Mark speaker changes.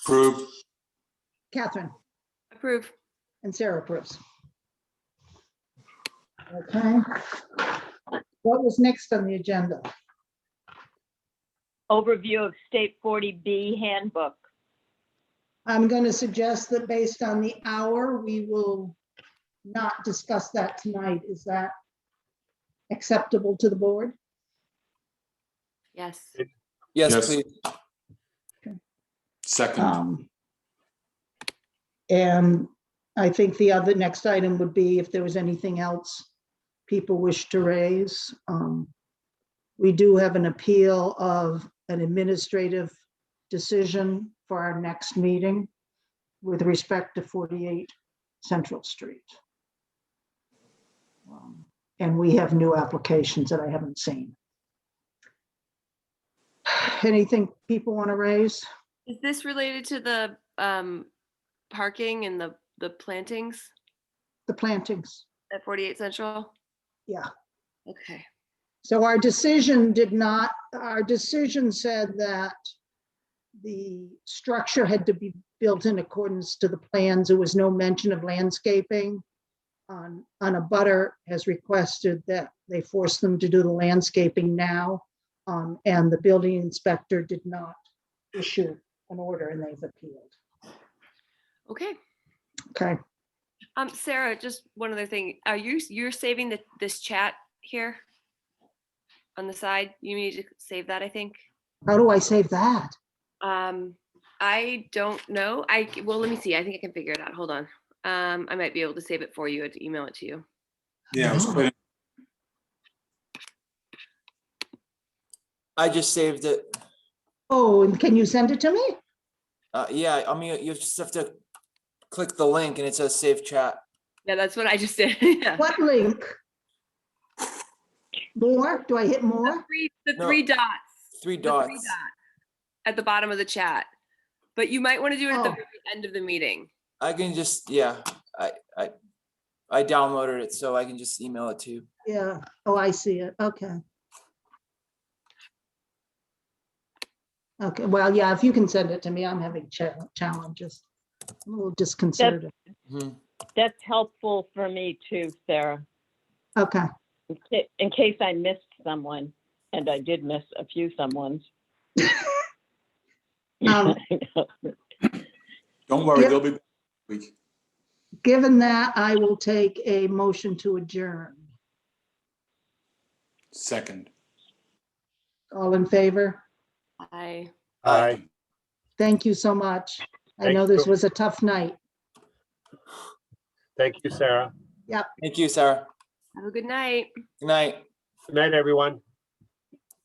Speaker 1: Approve,
Speaker 2: Catherine
Speaker 3: Approve.
Speaker 2: and Sarah approves. Okay. What was next on the agenda?
Speaker 4: overview of State 40B handbook.
Speaker 2: I'm going to suggest that based on the hour, we will not discuss that tonight. Is that acceptable to the board?
Speaker 3: Yes.
Speaker 5: Yes,
Speaker 1: Yes.
Speaker 5: please.
Speaker 1: second,
Speaker 2: Um, And I think the other next item would be if there was anything else people wish to raise. Um, We do have an appeal of an administrative decision for our next meeting with respect to 48 Central Street. Um, And we have new applications that I haven't seen. Anything people want to raise?
Speaker 3: Is this related to the um parking and the the plantings
Speaker 2: The plantings.
Speaker 3: at 48 Central?
Speaker 2: Yeah.
Speaker 3: Okay.
Speaker 2: So our decision did not, our decision said that the structure had to be built in accordance to the plans. There was no mention of landscaping. On, on a butter has requested that they force them to do the landscaping now. Um, and the building inspector did not issue an order and they've appealed.
Speaker 3: Okay.
Speaker 2: Okay,
Speaker 3: Um, Sarah, just one other thing. Are you you're saving the this chat here? On the side, you need to save that, I think.
Speaker 2: how do I save that?
Speaker 3: Um, I don't know. I c- well, let me see. I think I can figure it out. Hold on. Um, I might be able to save it for you and email it to you.
Speaker 1: yeah, I was putting-
Speaker 5: I just saved it.
Speaker 2: Oh, and can you send it to me?
Speaker 5: Uh, yeah, I mean, you just have to click the link and it says save chat.
Speaker 3: Yeah, that's what I just did. Yeah.
Speaker 2: What link? More? Do I hit more?
Speaker 3: The three, the
Speaker 5: No.
Speaker 3: three dots.
Speaker 5: Three
Speaker 3: the three
Speaker 5: dots.
Speaker 3: dot At the bottom of the chat. But you might want to do it at the
Speaker 2: Oh.
Speaker 3: very end of the meeting.
Speaker 5: I can just, yeah, I, I, I downloaded it, so I can just email it to you.
Speaker 2: Yeah, oh, I see it, okay. Okay, well, yeah, if you can send it to me, I'm having cha- challenges, I'm a little disconcerted.
Speaker 5: Mhm.
Speaker 4: That's helpful for me too, Sarah,
Speaker 2: Okay,
Speaker 4: in ca- in case I missed someone, and I did miss a few someones.
Speaker 2: Um,
Speaker 1: don't worry,
Speaker 2: Yep.
Speaker 1: they'll be back next week.
Speaker 2: given that, I will take a motion to adjourn.
Speaker 1: second.
Speaker 2: All in favor?
Speaker 3: I
Speaker 6: Aye.
Speaker 2: Thank you so much. I
Speaker 6: Thank
Speaker 2: know this
Speaker 6: you.
Speaker 2: was a tough night.
Speaker 6: Thank you, Sarah.
Speaker 5: Thank you, Sarah.
Speaker 3: have a good night.
Speaker 5: Good night.
Speaker 6: Good night, everyone.